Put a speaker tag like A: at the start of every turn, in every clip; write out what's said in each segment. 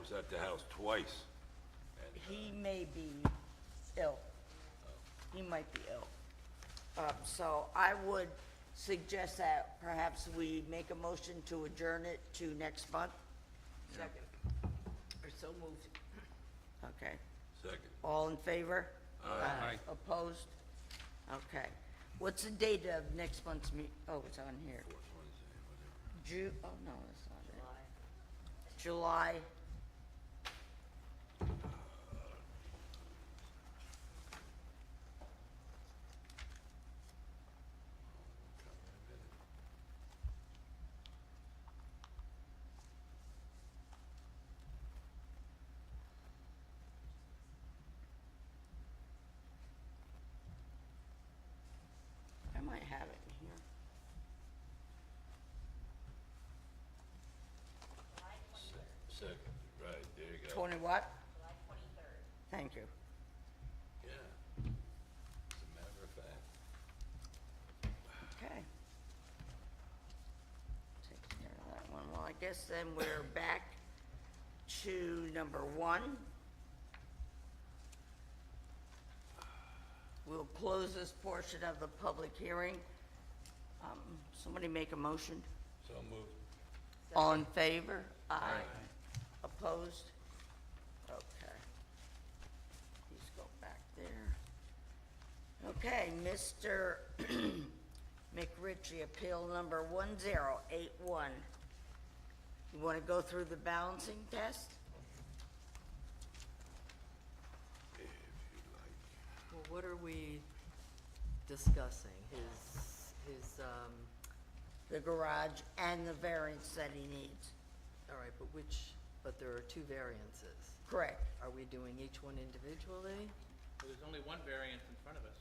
A: was at the house twice.
B: He may be ill. He might be ill. Um, so I would suggest that perhaps we make a motion to adjourn it to next month. Second. Or so moved. Okay.
A: Second.
B: All in favor? Aye. Opposed? Okay. What's the date of next month's meet, oh, it's on here. Ju, oh, no, it's not it. July. I might have it in here.
A: Second, right, there you go.
B: Twenty what? July twenty-third. Thank you.
A: Yeah. As a matter of fact.
B: Okay. Take care of that one. Well, I guess then we're back to number one. We'll close this portion of the public hearing. Um, Somebody make a motion.
A: So moved.
B: All in favor? Aye. Opposed? Okay. Please go back there. Okay, Mr. McRitchie, appeal number one zero eight one. You want to go through the balancing test?
A: If you like.
C: Well, what are we discussing? His, his, um,
B: The garage and the variance that he needs.
C: all right, but which, but there are two variances.
B: Correct.
C: Are we doing each one individually?
D: Well, there's only one variant in front of us,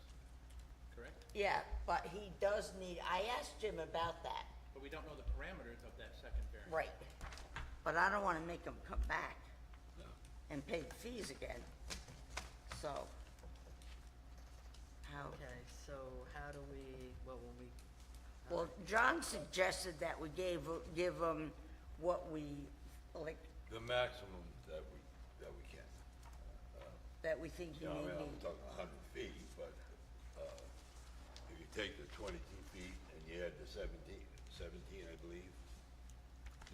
D: correct?
B: Yeah, but he does need, I asked him about that.
D: But we don't know the parameters of that second variant.
B: Right. But I don't wanna make them come back and pay the fees again, so. How,
C: Okay, so how do we, well, when we, all
B: well, John suggested that we gave, give them what we, like,
A: The maximum that we, that we can.
B: that we think he
A: You know,
B: may
A: I mean, I'm
B: need.
A: talking a hundred feet, but, uh, if you take the twenty-two feet and you add the seventeen, seventeen, I believe,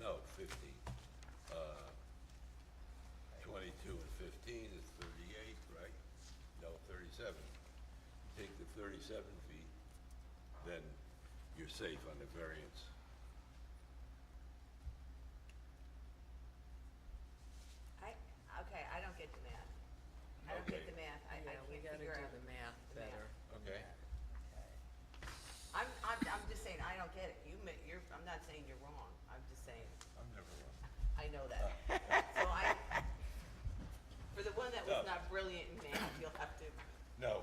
A: no, fifteen, uh, twenty-two and fifteen is thirty-eight, right? No, thirty-seven. Take the thirty-seven feet, then you're safe on the variance.
E: I, okay, I don't get the math. I don't
A: Okay.
E: get the math. I, I
C: yeah, we
E: can't
C: gotta do
E: figure out.
C: the math
E: the math.
C: better.
A: Okay.
E: I'm, I'm, I'm just saying, I don't get it. You, ma- you're, I'm not saying you're wrong. I'm just saying,
A: I'm never wrong.
E: I know that. So I, for the one that was
A: No.
E: not brilliant in math, you'll have to,
A: No,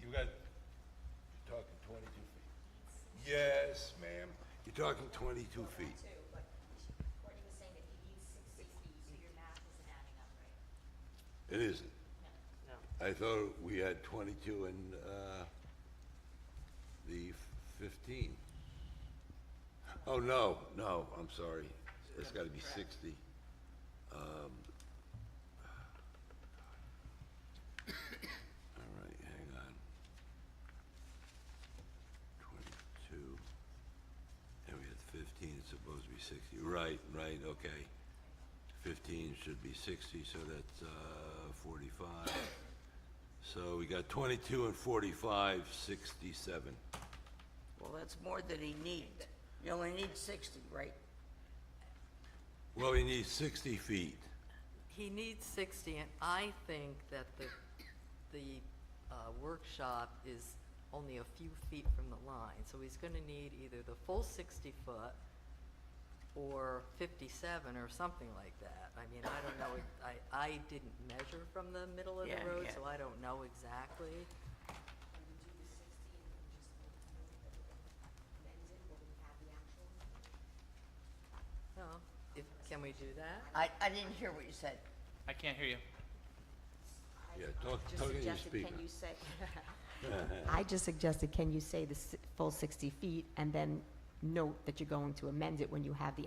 A: you got, you're talking twenty-two feet. Yes, ma'am, you're talking twenty-two feet.
F: too, but Courtney was saying that he needs sixty feet, so your math isn't adding up right.
A: It isn't.
E: no.
A: I thought we had twenty-two and, uh, the fifteen. Oh, no, no, I'm sorry, it's gotta be sixty. Um, all right, hang on. Twenty-two, and we had fifteen, it's supposed to be sixty, right, right, okay. 15 should be 60, so that's uh, 45. So we got 22 and 45, 67.
B: Well, that's more than he needs. You only need sixty, right?
A: Well, we need 60 feet.
C: He needs sixty, and I think that the, the, uh, workshop is only a few feet from the line, so he's gonna need either the full sixty foot or fifty-seven or something like that. I mean, I don't know, it- I, I didn't measure from the middle of
B: Yeah,
C: the road,
B: yeah.
C: so I don't know exactly. No, if, can we do that?
B: I, I didn't hear what you said.
D: I can't hear you.
A: Yeah, talk, talking to the speaker.
F: say? I just suggested, can you say the s- full 60 feet and then note that you're going to amend it when you have the